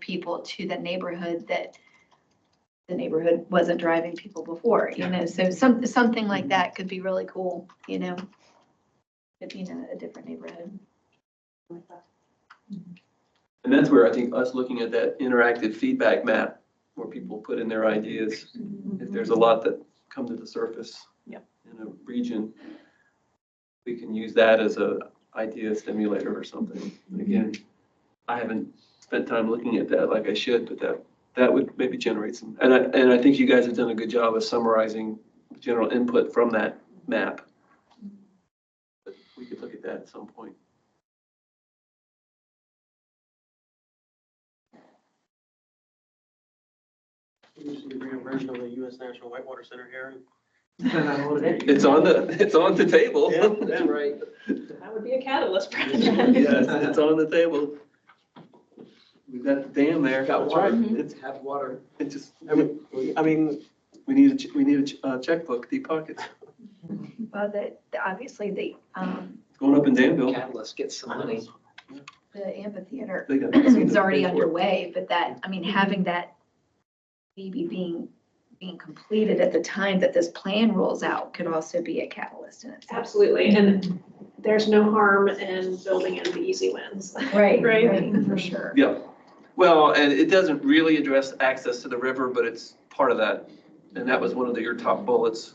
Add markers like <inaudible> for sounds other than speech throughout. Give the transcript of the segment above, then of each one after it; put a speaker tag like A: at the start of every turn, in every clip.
A: people to the neighborhood that the neighborhood wasn't driving people before, you know, so some, something like that could be really cool, you know? If you know, a different neighborhood.
B: And that's where I think us looking at that interactive feedback map, where people put in their ideas,
A: Mm-hmm.
B: if there's a lot that come to the surface.
C: Yep.
B: In a region, we can use that as a idea stimulator or something. But Again, I haven't spent time looking at that like I should, but that, that would maybe generate some. And I, and I think you guys have done a good job of summarizing general input from that map. But We could look at that at some point.
D: We just need to bring a version of the U.S. National Whitewater Center <laughs> here.
B: It's on the, it's on the table.
D: Yeah, that's right.
C: That would be a catalyst project.
E: <laughs>
B: Yes, it's on the table. We've got the dam there.
D: Got water.
B: It's,
D: Have water.
B: it just,
D: I mean, we- I mean,
B: we need a, ch- we need a ch- uh, checkbook, deep pockets.
A: Well, that, obviously, the, um,
B: It's going up in Danville.
E: Catalyst gets some money.
A: the
B: <clears throat>
A: amphitheater
B: They got-
A: is already underway, but that, I mean, having that maybe being, being completed at the time that this plan rolls out could also be a catalyst in itself.
C: Absolutely, and there's no harm in building in the easy wins. <laughs>
A: <laughs> Right,
C: Right.
A: For sure.
B: Yeah. Well, and it doesn't really address access to the river, but it's part of that. And that was one of the- your top bullets.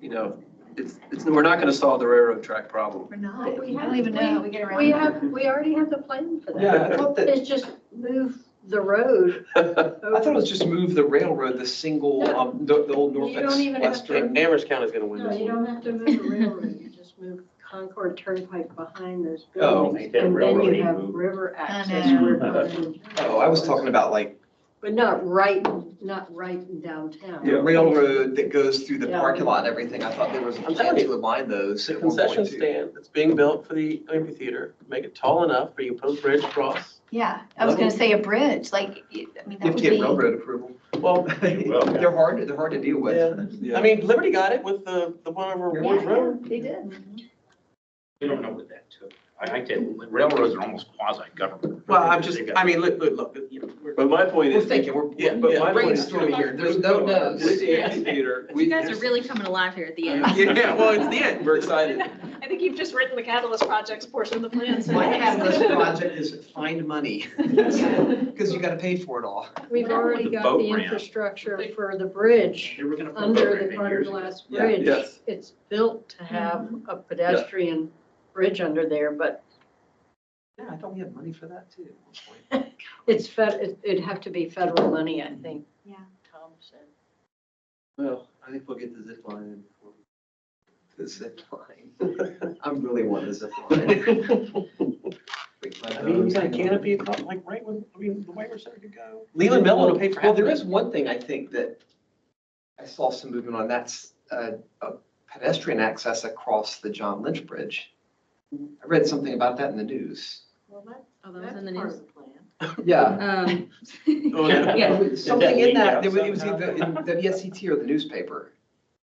B: You know, it's, it's, we're not going to solve the railroad track problem. <laughs>
A: We're not,
F: But we
A: we
F: have-
A: don't even know how we get around.
F: We
A: it.
F: have, we already have the plan for
B: Yeah, I
F: that.
E: thought that-
F: It's just move the road.
B: I
E: I thought it was just move the railroad, the single,
F: No.
E: um, the, the old
F: You don't
E: Norfolk
F: even have
E: Western.
D: Amherst County's gonna win
F: No,
D: this.
F: you don't have to move the railroad, you just move Concord Turnpike behind those
E: Oh,
F: buildings.
D: yeah,
F: And then
D: railroad,
F: you
D: you
F: have
D: move.
F: river access.
E: <laughs>
A: know.
F: where Concord-
E: Oh, I was talking about like
F: But not right, not right in downtown.
E: the railroad that goes through the
F: Yeah.
E: parking lot and everything. I thought there was a
D: I'm
E: plan
D: telling you.
E: to align those
D: The
E: at one
D: concession
E: point too.
D: stand that's being built for the amphitheater, make it tall enough where you can put a bridge across.
A: Yeah, I was gonna say a bridge, like, y- I
E: You
A: mean, that
E: have to
A: would
E: get
A: be,
E: railroad approval.
D: Well,
E: <laughs> They're hard, they're hard to deal with.
D: yeah, I mean, Liberty got it with the, the one over Ward Road.
F: They did.
G: We don't know what that took. I like that railroads are almost quasi-government.
D: Well, I'm just, I mean, look, look, look, you know, we're.
B: But my point
E: We're
B: is.
E: thinking, we're
B: Yeah,
E: we're
B: but my point is.
E: brainstorming here. There's no
B: With
E: no's. <laughs>
B: the amphitheater. we-
H: You guys are really coming alive here at the
B: <laughs>
H: end.
D: Yeah, well, it's the end.
B: We're excited.
C: I think you've just written the catalyst projects portion of the plan. <laughs> so-
E: My catalyst project is find
D: <laughs>
E: money,
B: <laughs>
E: because you gotta pay for it all.
F: We've already
G: The
F: got
G: boat
F: the
G: ramp.
F: infrastructure for the bridge,
G: They were gonna put a
F: under
G: program
F: the
G: in
F: Carter
G: years ago.
F: Glass
E: Yeah,
F: Bridge.
B: yes.
F: It's built to have a pedestrian bridge under there, but
E: Yeah, I thought we had money for that too. at one point.
F: It's fed, it- it'd have to be federal money, I think.
A: Yeah.
F: Tom said.
B: Well, I think we'll get the zip line in before we
E: The zip line. I'm really wanting a um, zip line.
D: <laughs> I mean, he's like canopy, across, like right when, I mean, the way we're set to go.
E: Leland Miller
D: will pay for half
E: Well,
D: of
E: there
D: it.
E: is one thing I think that I saw some movement on, that's uh, a pedestrian access across the John Lynch Bridge.
D: Mm-hmm.
E: I read something about that in the
D: <laughs>
E: news.
F: Well,
H: Oh, that was in the
F: that's part of
H: news.
F: the plan.
E: Yeah.
H: Um,
D: Oh, yeah.
H: Yeah.
E: Something in
D: leaked
E: that,
D: out
E: it was it was
D: somehow.
E: either in WSET or the newspaper.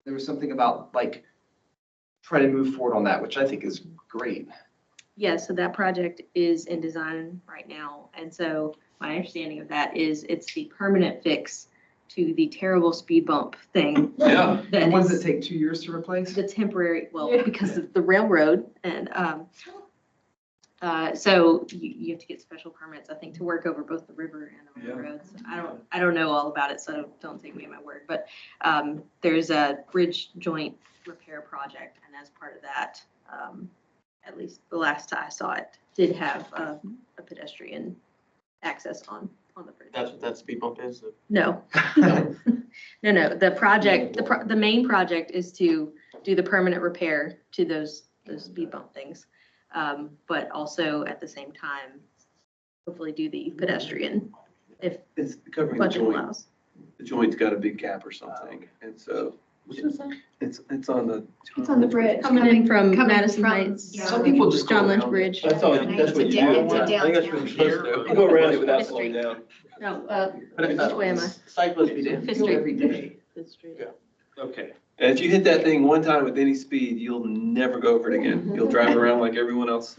E: There was something about like trying to move forward on that, which I think is great.
H: yeah, so that project is in design right now. And so my understanding of that is it's the permanent fix to the terrible speed bump thing.
B: Yeah.
E: The
H: That
E: ones that
H: is
E: take two years to replace?
H: the temporary, well,
F: Yeah.
H: because of the railroad and, um, uh, so you, you have to get special permits, I think, to work over both the river and the
B: Yeah.
H: railroads. I don't, I don't know all about it, so don't take me at my word, but, um, there's a bridge joint repair project. And as part of that, um, at least the last I saw it, did have a, a pedestrian access on, on the bridge.
D: That's what that speed bump
E: <laughs>
D: <laughs> is.
H: No, no, no, the project, the, pro- the main project is to do the permanent repair to those, those speed bump things. Um, but also at the same time, hopefully do the pedestrian
B: It's covering the
H: budget
B: joint.
H: allows.
B: The joint's got a big gap or something, and so it's, it's on the.
A: It's on the bridge.
H: Coming in from
A: Coming
H: Madison
A: from-
H: Heights.
A: yeah.
E: Some people just go
H: John Lynch
E: around it.
H: Bridge.
B: That's all, that's what you do.
A: It's a
B: I think that's what
A: downtown.
B: you're supposed to do. You Go around it without slowing down.
H: No, uh,
D: But, uh,
H: which way am I?
D: Cyclists be doing.
H: Fifth Street.
E: Every day.
H: Fifth Street.
G: Okay.
B: And if you hit that thing one time
F: <laughs>
H: <laughs>
B: with any speed, you'll never go over it again. You'll drive around like everyone else.